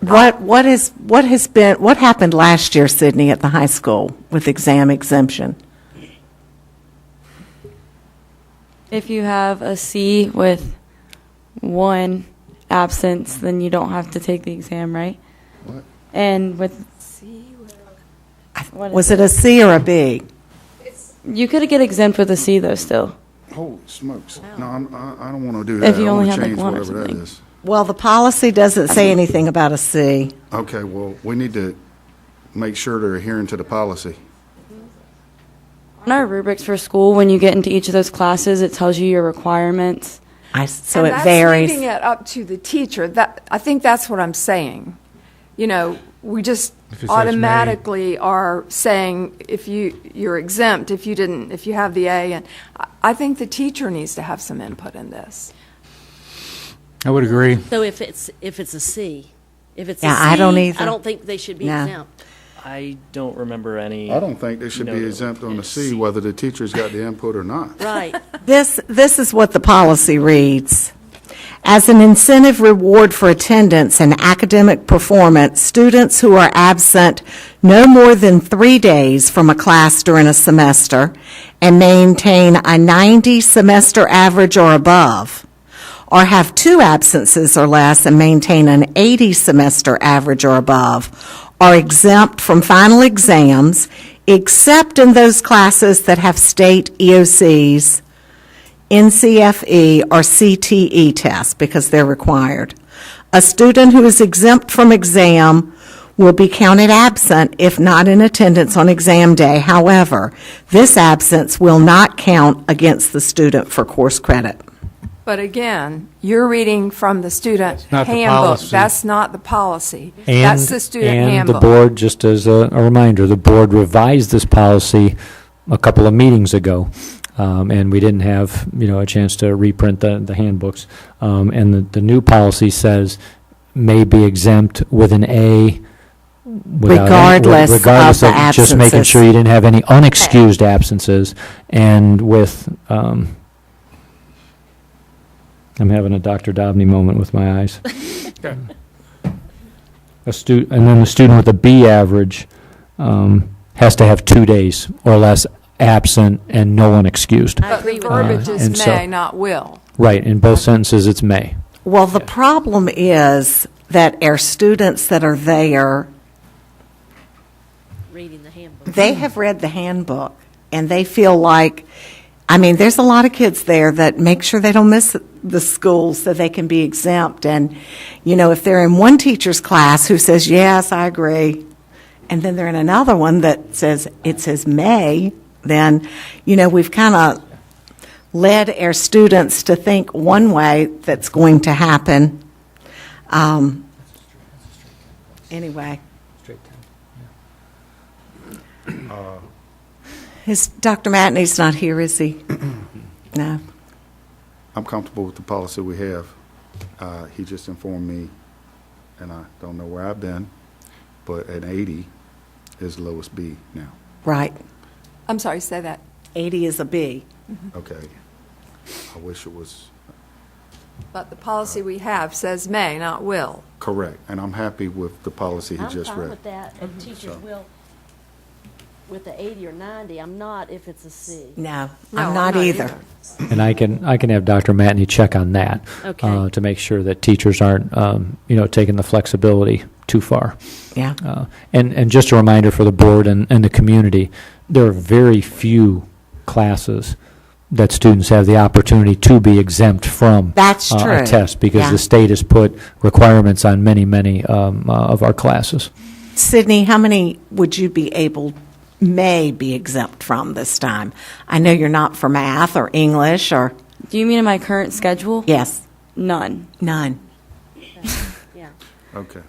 What, what is, what has been, what happened last year, Sydney, at the high school with exam exemption? If you have a C with one absence, then you don't have to take the exam, right? And with What is Was it a C or a B? you could get exempt with a C though still. Holy smokes. No, I'm, I, I don't want to do that. If you I only wanna had, like, change one or whatever that something. is. Well, the policy doesn't say anything about a C. Okay, well, we need to make sure they're adhering to the policy. On our rubrics for school, when you get into each of those classes, it tells you your requirements. I s so And it that's leaving varies. it up to the teacher. That, I think that's what I'm saying. You know, we just If it says may. automatically are saying if you, you're exempt if you didn't, if you have the A. And I- I think the teacher needs to have some input in this. I would agree. So if it's, if it's a C, if it's a C, Yeah, I don't either. I don't think they should be No. exempt. I don't remember any. I don't think they should be No. exempt on the C whether the teacher's got the input or not. Right. This, this is what the policy reads. As an incentive reward for attendance and academic performance, students who are absent no more than three days from a class during a semester and maintain a 90 semester average or above, or have two absences or less and maintain an 80 semester average or above, are exempt from final exams, except in those classes that have state E EOCs NCFE E or CTE tests because they're required. A student who is exempt from exam will be counted absent if not in attendance on exam day. However, this absence will not count against the student for course credit. But again, you're reading from the student not the handbook. policy. That's not the policy. And- That's the student And the handbook. board, just as a a reminder, the board revised this policy a couple of meetings ago, um, and we didn't have, you know, a chance to reprint the the handbooks. Um, And the the new policy says may be exempt with an A without. any- Regardless of regardless the Just making absences. sure you didn't have any unexcused absences, and with, um, I'm having a Dr. Dobney moment with my eyes. A stu, and then the student with a B average um, has to have two days or less absent and no one excused. I But agree the with verbiage Uh, is and so- may, not will. Right, in both sentences, it's may. Well, the problem is that our students that are there, reading the handbook. they have read the handbook and they feel like, I mean, there's a lot of kids there that make sure they don't miss the school so they can be exempt. And, you know, if they're in one teacher's class who says, yes, I agree, and then they're in another one that says, it says may, then, you know, we've kind of led our students to think one way that's going to happen. Um, anyway. Is, Dr. Matney's not here, is he? No. I'm comfortable with the policy we have. Uh, he just informed me, and I don't know where I've been, but an 80 is lowest B now. Right. I'm sorry, say that. 80 is a B. Okay. I wish it was But the policy we have says may, not will. correct, and I'm happy with the policy he I'm just fine read. Mhm. with that, and teachers will, with the 80 or 90, I'm not if it's a C. No, No, I'm not either. And I can, I can have Dr. Matney check on that. Okay. uh, To make sure that teachers aren't, um, you know, taking the flexibility too far. Yeah. Uh, And, and just a reminder for the board and, and the community, there are very few classes that students have the opportunity to be exempt from. That's uh, true. A test, because Yeah. the state has put requirements on many, many um, uh, of our classes. Sydney, how many would you be able, may be exempt from this time? I know you're not for math or English or, Do you mean in my current schedule? yes, None. none. Yeah. Okay.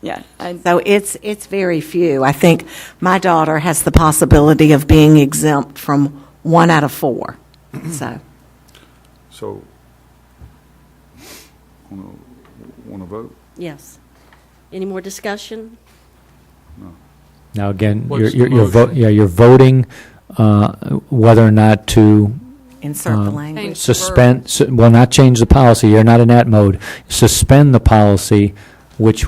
Yeah. I, So it's, it's very few. I think my daughter has the possibility of being exempt from one out of four. So, So, want to, want to vote? Yes. Any more discussion? Now, again, you're, What's the you're, you're vo- motion? yeah, you're voting uh, whether or not to insert the Um, language. Change the verb. suspend, su- well, not change the policy, you're not in that mode, suspend the policy, which